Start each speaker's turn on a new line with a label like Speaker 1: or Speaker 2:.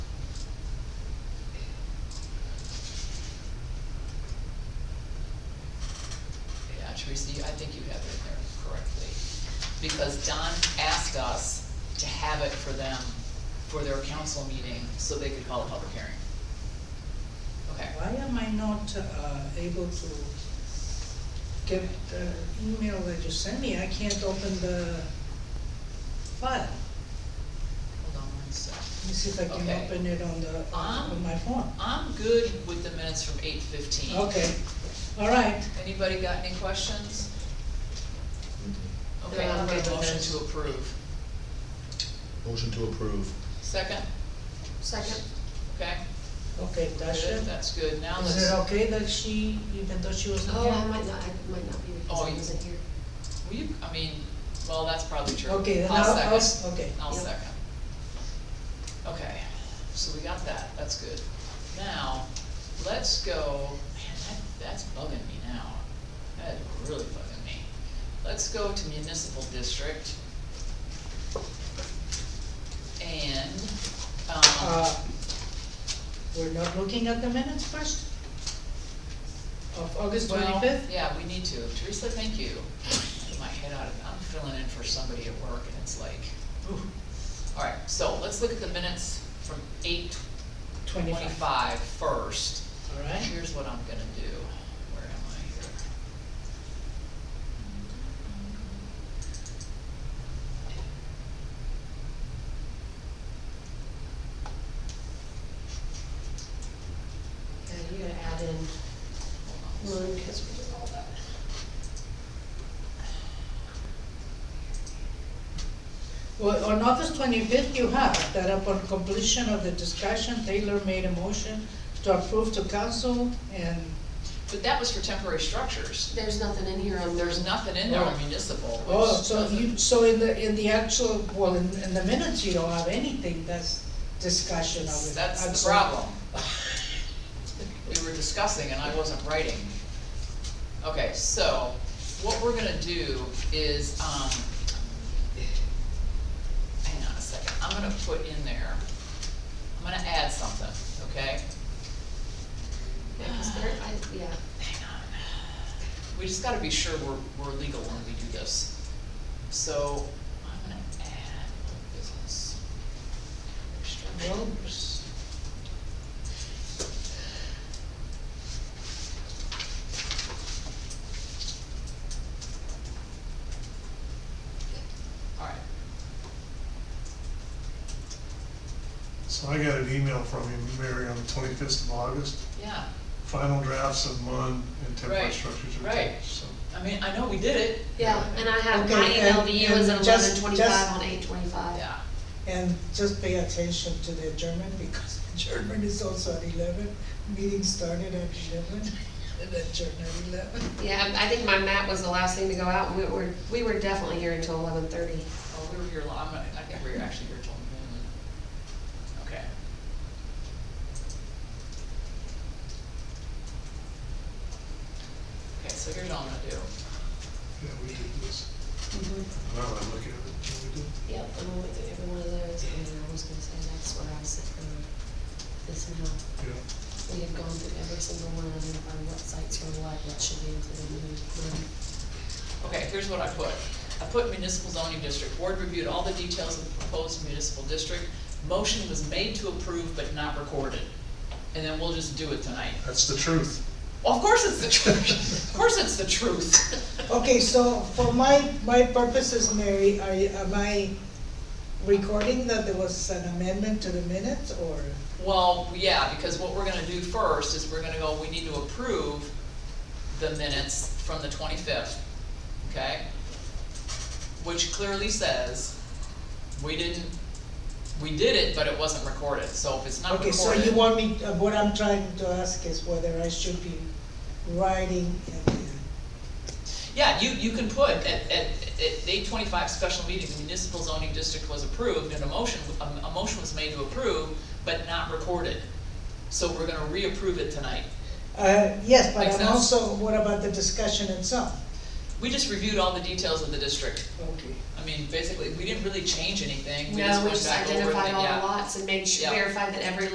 Speaker 1: Teresa, you- I think you have it in there correctly. Because Don asked us to have it for them, for their council meeting, so they could call a public hearing. Okay,
Speaker 2: Why am I not uh, able to get the email that you sent me? I can't open the file.
Speaker 1: hold on one sec.
Speaker 2: Let me see if I
Speaker 1: Okay.
Speaker 2: can open it on the,
Speaker 1: Um.
Speaker 2: on my phone.
Speaker 1: I'm good with the minutes from eight fifteen.
Speaker 2: Okay, all right.
Speaker 1: Anybody got any questions? Okay,
Speaker 2: Yeah,
Speaker 1: I'm
Speaker 2: I'll
Speaker 1: gonna
Speaker 2: make a
Speaker 1: motion
Speaker 2: motion.
Speaker 1: to approve.
Speaker 3: Motion to approve.
Speaker 1: Second,
Speaker 4: Second.
Speaker 1: okay?
Speaker 2: Okay,
Speaker 1: Good,
Speaker 2: Dasha,
Speaker 1: That's good, now
Speaker 2: is it
Speaker 1: let's,
Speaker 2: okay that she, even though she was not
Speaker 4: Oh, I
Speaker 2: here?
Speaker 4: might not, I might not be
Speaker 1: Oh,
Speaker 4: because I
Speaker 1: you-
Speaker 4: wasn't here.
Speaker 1: will you, I mean, well, that's probably true.
Speaker 2: Okay, then
Speaker 1: I'll
Speaker 2: I'll, I'll,
Speaker 1: second.
Speaker 2: s- okay.
Speaker 1: I'll
Speaker 4: Yep.
Speaker 1: second. Okay, so we got that, that's good. Now, let's go, man, that, that's bugging me now. That is really bugging me. Let's go to municipal district. And, um,
Speaker 2: Uh, We're not looking at the minutes first? Of August
Speaker 1: well,
Speaker 2: twenty-fifth?
Speaker 1: yeah, we need to. Teresa, thank you. Get My head out of, I'm filling in for somebody at work and it's like, ooh. All right, so let's look at the minutes from eight
Speaker 2: Twenty-five,
Speaker 1: twenty-five first.
Speaker 2: all right?
Speaker 1: Here's what I'm gonna do. Where am I here?
Speaker 4: Yeah, you gotta add in
Speaker 1: Hold on.
Speaker 4: Moon because we did all that.
Speaker 2: Well, on August twenty-fifth, you have that upon completion of the discussion, Taylor made a motion to approve to council and,
Speaker 1: But that was for temporary structures.
Speaker 4: There's nothing in here on.
Speaker 1: There's nothing in there on
Speaker 2: Oh.
Speaker 1: municipal, which
Speaker 2: oh, so
Speaker 1: doesn't-
Speaker 2: you, so in the, in the actual, well, in, in the minutes, you don't have anything that's discussion of it.
Speaker 1: That's
Speaker 2: I'm
Speaker 1: the
Speaker 2: sorry.
Speaker 1: problem. We were discussing and I wasn't writing. Okay, so what we're gonna do is, um, hang on a second, I'm gonna put in there, I'm gonna add something, okay?
Speaker 4: Yeah, 'cause there, I, yeah.
Speaker 1: Hang on. We just gotta be sure we're, we're legal when we do this. So, I'm gonna add business.
Speaker 2: Well,
Speaker 1: Alright,
Speaker 5: So I got an email from you, Mary, on the twenty-fifth of August,
Speaker 1: yeah,
Speaker 5: final drafts of MUN and temporary
Speaker 1: Right,
Speaker 5: structures are
Speaker 1: right.
Speaker 5: attached, so.
Speaker 1: I mean, I know we did it,
Speaker 4: Yeah, and I have, my
Speaker 2: Okay,
Speaker 4: email
Speaker 2: and-
Speaker 4: to you is
Speaker 2: and
Speaker 4: at
Speaker 2: just-
Speaker 4: eleven
Speaker 2: just-
Speaker 4: twenty-five on eight twenty-five.
Speaker 1: yeah.
Speaker 2: And just pay attention to the German, because the German is also at eleven, meeting started at eleven, and adjourned at eleven.
Speaker 4: Yeah, I I think my map was the last thing to go out, we were, we were definitely here until eleven thirty.
Speaker 1: Oh, we were here, lo- I'm, not- I think we were actually here till noon. Okay. Okay, so here's what I'm gonna do.
Speaker 5: Yeah, we did this.
Speaker 4: Mm-hmm.
Speaker 5: Now I look at it, yeah, we did.
Speaker 4: Yep, and we went through every one of those, and I was gonna say, that's where I was sitting, this and how.
Speaker 5: Yeah,
Speaker 4: We have gone through every single one and identified what sites were what, what should be included in the.
Speaker 1: Okay, here's what I put. I put municipal zoning district. Board reviewed all the details of the proposed municipal district. Motion was made to approve but not recorded. And then we'll just do it tonight.
Speaker 5: that's the truth.
Speaker 1: Well, Of course it's the truth. Of course it's the truth.
Speaker 2: Okay, so for my, my purposes, Mary, are, you- am I recording that there was an amendment to the minutes, or?
Speaker 1: Well, yeah, because what we're gonna do first is we're gonna go, we need to approve the minutes from the twenty-fifth, okay? Which clearly says, we didn't, we did it, but it wasn't recorded, so if it's not
Speaker 2: Okay,
Speaker 1: recorded.
Speaker 2: so you want me, uh, what I'm trying to ask is whether I should be writing in the,
Speaker 1: Yeah, you, you can put, at, at, at eight twenty-five special meeting, the municipal zoning district was approved, and a motion, a, a motion was made to approve, but not recorded. So we're gonna reapprove it tonight.
Speaker 2: uh, yes, but
Speaker 1: Makes
Speaker 2: I'm
Speaker 1: sense.
Speaker 2: also, what about the discussion itself?
Speaker 1: We just reviewed all the details of the district.
Speaker 2: Okay.
Speaker 1: I mean, basically, we didn't really change anything, we just
Speaker 4: No, we
Speaker 1: went
Speaker 4: just
Speaker 1: back over the, yeah.
Speaker 4: identified all the lots and made sure,
Speaker 1: Yeah.
Speaker 4: verified that every